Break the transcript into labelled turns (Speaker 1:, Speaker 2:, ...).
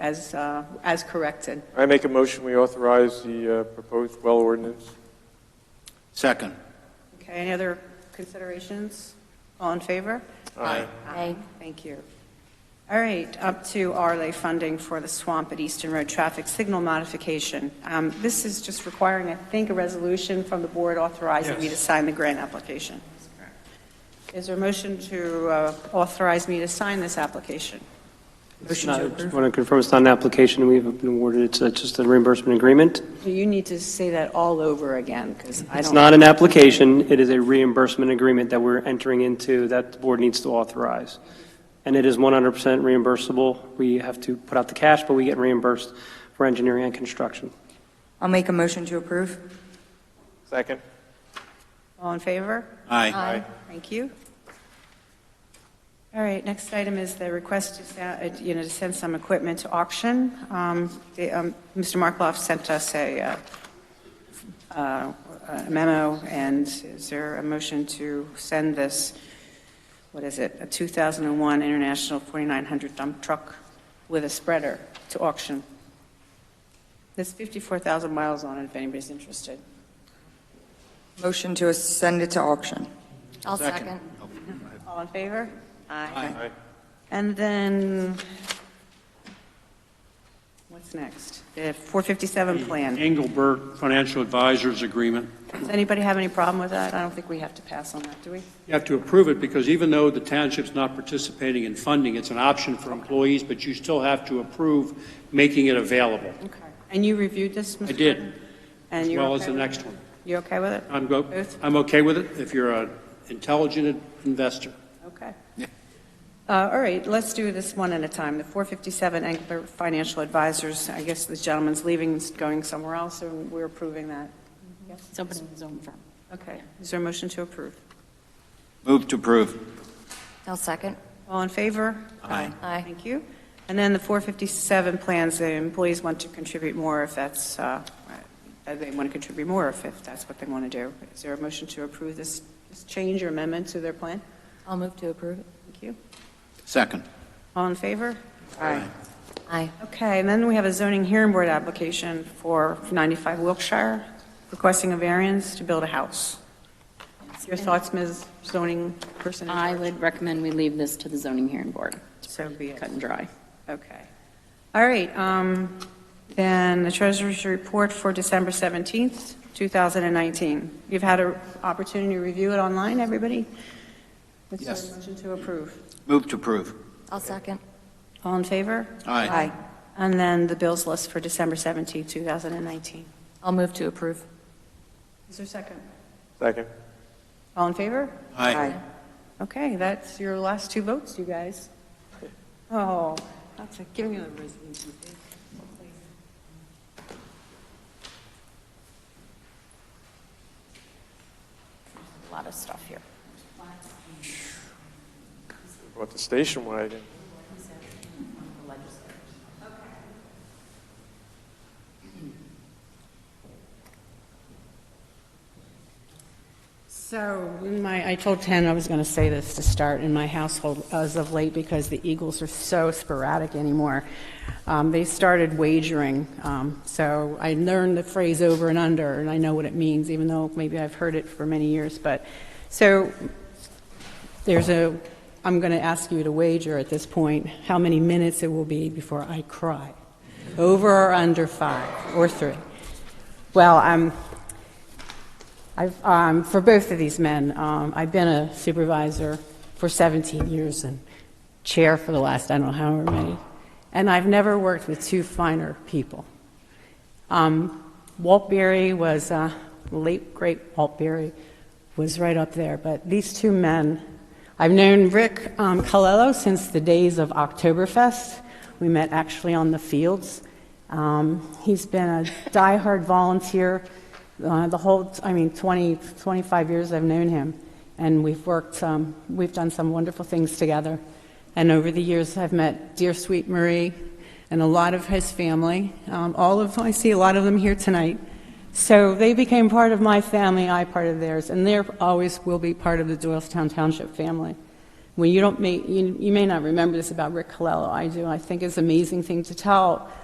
Speaker 1: as, uh, as corrected.
Speaker 2: I make a motion, we authorize the uh, proposed well ordinance.
Speaker 3: Second.
Speaker 1: Okay, any other considerations? All in favor?
Speaker 3: Aye.
Speaker 4: Aye.
Speaker 1: Thank you. All right, up to ARLA funding for the swamp at Eastern Road traffic signal modification. Um, This is just requiring, I think, a resolution from the board authorizing me to sign the grant application. Is there a motion to uh, authorize me to sign this application?
Speaker 5: It's not- I want to confirm it's not an application we haven't been awarded, it's uh, just a reimbursement agreement.
Speaker 1: You need to say that all over again, because I don't...
Speaker 5: It's not an application, it is a reimbursement agreement that we're entering into that the board needs to authorize. And it is 100% reimbursable. We have to put out the cash, but we get reimbursed for engineering and construction.
Speaker 4: I'll make a motion to approve.
Speaker 2: Second.
Speaker 1: All in favor?
Speaker 3: Aye.
Speaker 1: Thank you. All right, next item is the request to, sa- uh, you know, to send some equipment to auction. Um, the, um, Mr. Markloff sent us a uh, uh, a memo, and is there a motion to send this, what is it, a 2001 International 4900 dump truck with a spreader to auction? There's 54,000 miles on it, if anybody's interested.
Speaker 4: Motion to send it to auction.
Speaker 6: I'll second.
Speaker 1: All in favor?
Speaker 2: Aye.
Speaker 1: And then, what's next? The 457 plan.
Speaker 7: Engelbert Financial Advisors Agreement.
Speaker 1: Does anybody have any problem with that? I don't think we have to pass on that, do we?
Speaker 7: You have to approve it because even though the township's not participating in funding, it's an option for employees, but you still have to approve making it available,
Speaker 1: Okay. And you reviewed this, Mr.
Speaker 7: I did.
Speaker 1: Gordon?
Speaker 7: as
Speaker 1: And you're
Speaker 7: well as
Speaker 1: okay
Speaker 7: the
Speaker 1: with it?
Speaker 7: next one.
Speaker 1: You okay with it?
Speaker 7: I'm go,
Speaker 1: Both?
Speaker 7: I'm okay with it if you're an intelligent investor.
Speaker 1: Okay.
Speaker 3: Yeah.
Speaker 1: Uh, All right, let's do this one at a time. The 457 Engelbert Financial Advisors, I guess this gentleman's leaving, is going somewhere else, and we're approving that.
Speaker 6: It's opening his own firm.
Speaker 1: Okay. Is there a motion to approve?
Speaker 3: Move to approve.
Speaker 6: I'll second.
Speaker 1: All in favor?
Speaker 3: Aye.
Speaker 6: Aye.
Speaker 1: Thank you. And then the 457 plans, the employees want to contribute more if that's, uh, uh, they want to contribute more if if that's what they want to do. Is there a motion to approve this this change or amendment to their plan?
Speaker 6: I'll move to approve it.
Speaker 1: Thank you.
Speaker 3: Second.
Speaker 1: All in favor? Aye.
Speaker 6: Aye.
Speaker 1: Okay, and then we have a zoning hearing board application for 95 Wilkshire, requesting a variance to build a house. Your thoughts, Ms. Zoning Person? in
Speaker 8: I
Speaker 1: charge?
Speaker 8: would recommend we leave this to the zoning hearing board,
Speaker 1: So be it.
Speaker 8: cut and dry.
Speaker 1: Okay. All right, um, then the treasurer's report for December 17th, 2019. You've had an opportunity to review it online, everybody? Is there a
Speaker 3: Yes.
Speaker 1: motion to approve?
Speaker 3: Move to approve.
Speaker 6: I'll second.
Speaker 1: All in favor?
Speaker 3: Aye.
Speaker 1: And then the bills list for December 17th, 2019.
Speaker 6: I'll move to approve.
Speaker 1: Is there a second?
Speaker 2: Second.
Speaker 1: All in favor?
Speaker 3: Aye.
Speaker 1: Okay, that's your last two votes, you guys. Oh, that's a, give me the resolution.
Speaker 6: A lot of stuff here.
Speaker 2: Brought the station wagon.
Speaker 1: So, in my, I told 10 I was going to say this to start in my household as of late because the Eagles are so sporadic anymore. Um, They started wagering, um, so I learned the phrase over and under, and I know what it means, even though maybe I've heard it for many years, but, so, there's a, I'm going to ask you to wager at this point how many minutes it will be before I cry, over or under five, or three. Well, I'm, I've, um, for both of these men, um, I've been a supervisor for 17 years and chair for the last, I don't know however many, and I've never worked with two finer people. Um, Walt Berry was, uh, late great Walt Berry was right up there, but these two men, I've known Rick um, Colello since the days of Oktoberfest. We met actually on the fields. Um, he's been a diehard volunteer uh, the whole, I mean, 20, 25 years I've known him, and we've worked, um, we've done some wonderful things together. And over the years, I've met dear sweet Marie and a lot of his family. Um, all of I see a lot of them here tonight. So they became part of my family, I part of theirs, and they are always will be part of the Doylestown Township family.
Speaker 9: Well, you don't, may- you you may not remember this about Rick Colello, I do, I think it's an amazing thing to tell